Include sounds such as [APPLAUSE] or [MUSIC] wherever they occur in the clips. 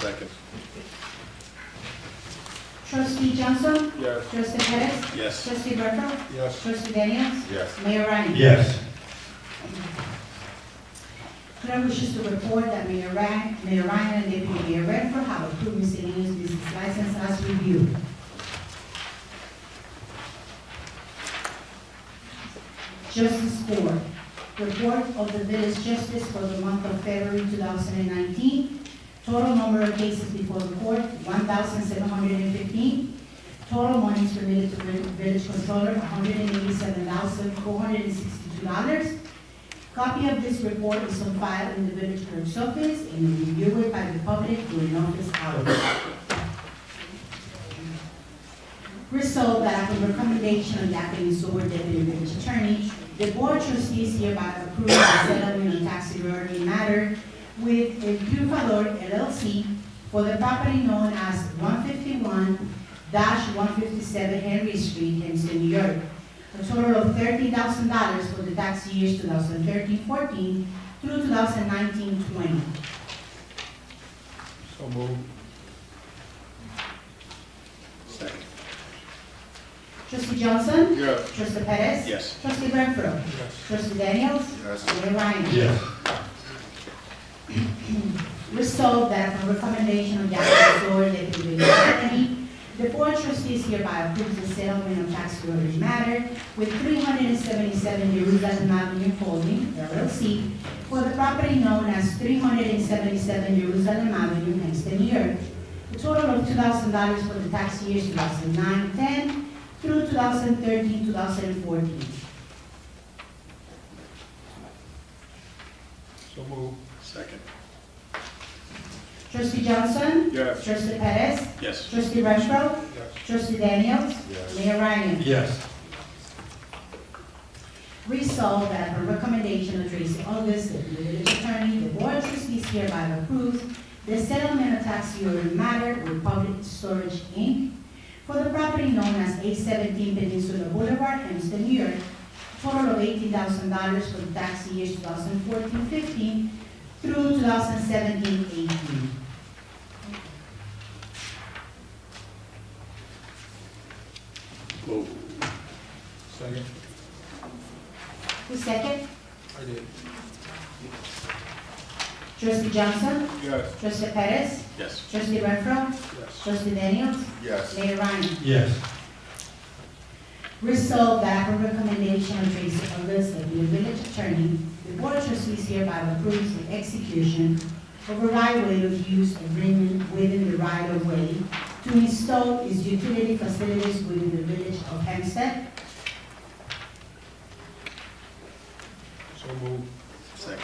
Second. Trustee Johnson? Yes. Trustee Perez? Yes. Trustee Bertram? Yes. Trustee Daniels? Yes. Mayor Ryan? Yes. Chair wishes to report that Mayor Ryan, Mayor Ryan and Deputy Mayor Redford have approved Mr. Leo's business license as reviewed. Justice Board, report of the village justice for the month of February 2019. Total number of cases before the court, 1,715. Total monies related to the village controller, $187,462. Copy of this report is on file in the village clerk's office and reviewed by the public during office hours. Resolved that upon recommendation of the acting sewer deputy village attorney, the board trustees hereby approve the settlement of tax liability matter with El Triunfador LLC for the property known as one fifty-one one fifty-seven Henry Street, Hempstead, New York, a total of thirty thousand dollars for the tax years 2013-14 through 2019-20. So moved. Second. Trustee Johnson? Yes. Trustee Perez? Yes. Trustee Renfro? Yes. Trustee Daniels? Yes. Mayor Ryan? [CLEARS THROAT] Yes. Resolved that upon recommendation of the Acting Authority Deputy Village Attorney, the Board of Trustees hereby approves the settlement of tax priority matter with 377 Jerusalem Avenue Holding LLC for the property known as 377 Jerusalem Avenue, Hempstead, New York. A total of $2,000 for the tax years 2009-10 through 2013-2014. So moved. Second. Trustee Johnson? Yes. Trustee Perez? Yes. Trustee Renfro? Yes. Trustee Daniels? Yes. Mayor Ryan? Yes. Resolved that upon recommendation of Tracy August, the village attorney, the board of trustees hereby approves the settlement of tax year matter with Public Storage Inc. for the property known as eight seventeen Peninsula Boulevard, Hempstead, New York, total of eighteen thousand dollars for the tax years 2014-15 through 2017-18. Moved. Second. Who second? I did. Trustee Johnson? Yes. Trustee Perez? Yes. Trustee Renfro? Yes. Trustee Daniels? Yes. Mayor Ryan? Yes. Resolved that upon recommendation of Tracy Ellis, the village attorney, the board of trustees hereby approves the execution of a right-of-way of use agreement within the right-of-way to install its utility facilities within the village of Hempstead. So moved. Second.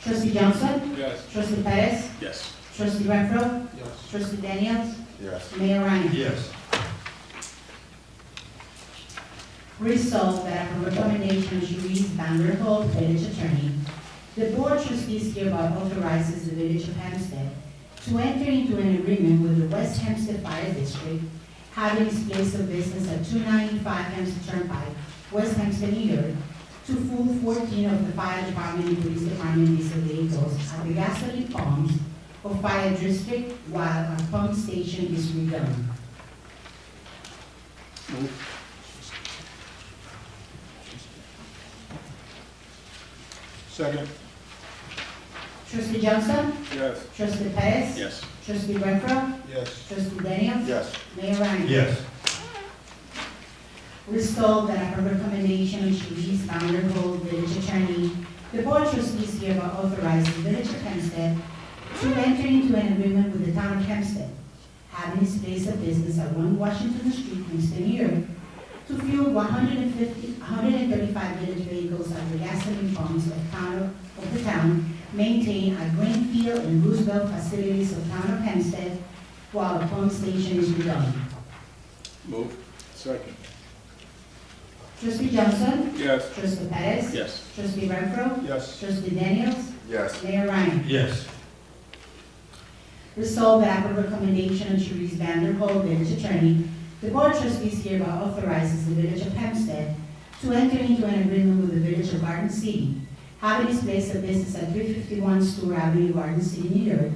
Trustee Johnson, Yes. trustee Perez, Yes. trustee Renfro, Yes. trustee Daniels, Yes. Mayor Ryan. Yes. Resolved that upon recommendation of Louise Vanderhold, village attorney, the board of trustees hereby authorizes the village of Hempstead to enter into an agreement with the West Hempstead Fire District, having its place of business at two ninety-five Hempstead Turnpike, West Hempstead, New York, to full fourteen of the fire department and police department diesel vehicles at the gasoline pumps of fire district while a pump station is redone. Second. Trustee Johnson, Yes. trustee Perez, Yes. trustee Renfro, Yes. trustee Daniels, Yes. Mayor Ryan. Yes. Resolved that upon recommendation of Louise Vanderhold, village attorney, the board of trustees hereby authorizes the village of Hempstead to enter into an agreement with the town of Hempstead, having its place of business at one Washington Street, Hempstead, New York, to fuel 150 135 village vehicles at the gasoline pumps of town, of the town, maintained at Greenfield and Roosevelt facilities of town of Hempstead, while the pump station is redone. Moved. Second. Trustee Johnson? Yes. Trustee Perez? Yes. Trustee Renfro. Yes. Trustee Daniels. Yes. Mayor Ryan. Yes. Resolved that upon recommendation of Therese Vanderhold, village attorney, the board of trustees hereby authorizes the village of Hempstead to enter into an agreement with the village of Garden City, Avery's Place of Business at 351 Stewart Avenue, Garden City, New York,